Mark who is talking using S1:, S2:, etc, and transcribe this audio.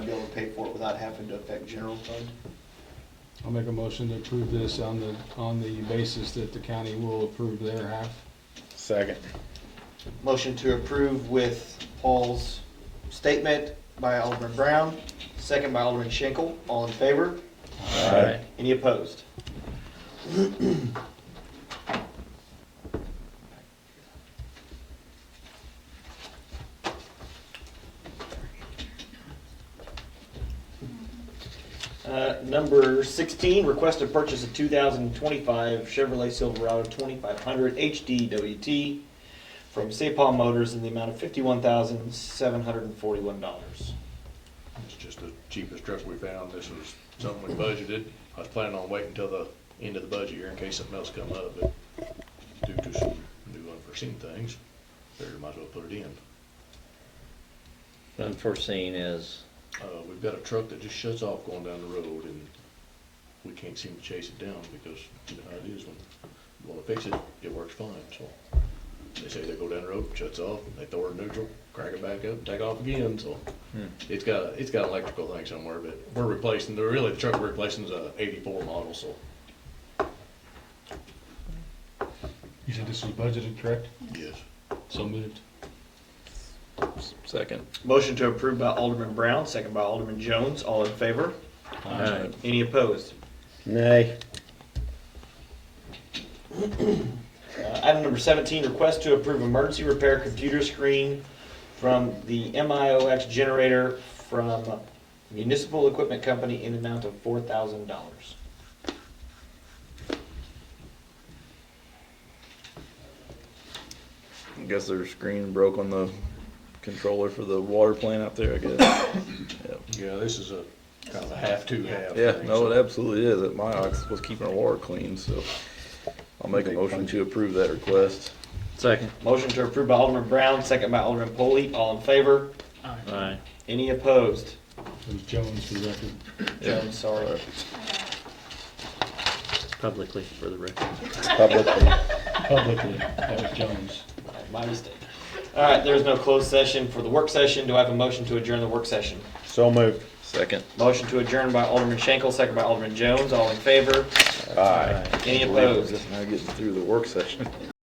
S1: pay for it without having to affect general fund.
S2: I'll make a motion to approve this on the, on the basis that the county will approve their half.
S3: Second.
S1: Motion to approve with Paul's statement by Alderman Brown, second by Alderman Schenkel. All in favor?
S3: Aye.
S1: Any opposed? Uh, Number 16, request to purchase a 2025 Chevrolet Silverado 2500 HDWT from Sapal Motors in the amount of $51,741.
S4: It's just the cheapest truck we found. This was something we budgeted. I was planning on waiting until the end of the budget year in case something else come up, but due to some new unforeseen things, figured might as well put it in.
S5: Unforeseen is,
S4: Uh, we've got a truck that just shuts off going down the road and we can't seem to chase it down because you know how it is when you wanna fix it, it works fine, so. They say they go down the road, shuts off, they throw it in neutral, crank it back up, and take off again, so. It's got, a- it's got an electrical thing somewhere, but we're replacing, the really, the truck we're replacing is a eighty-four model, so,
S2: You said this was budgeted, correct?
S4: yes.
S2: So moved.
S3: Second.
S1: Motion to approve by Alderman Brown, second by Alderman Jones. All in favor?
S3: Aye.
S1: Any opposed?
S3: Nay.
S1: Uh, Item number 17, request to approve emergency repair computer screen from the MIOX generator from Municipal Equipment Company in an amount of $4,000.
S3: I guess their screen broke on the controller for the water plant out there, I guess.
S4: Yeah, this is a, kind of a half-two half.
S3: Yeah,
S4: thing, so-
S3: no, it absolutely is. It, my ox was keeping our water clean, so I'll make a motion to approve that request.
S5: second,
S1: Motion to approve by Alderman Brown, second by Alderman Polley. All in favor?
S5: aye,
S1: Any opposed?
S2: It was Jones for the record.
S1: Jones, sorry.
S5: publicly for the record.
S3: Publicly.
S2: Publicly, that was Jones.
S1: My mistake. All right, there's no closed session for the work session. Do I have a motion to adjourn the work session?
S3: So moved. Second.
S1: Motion to adjourn by Alderman Schenkel, second by Alderman Jones. All in favor?
S3: Aye.
S1: Any
S3: Believe we're
S1: opposed?
S3: Just now getting through the work session.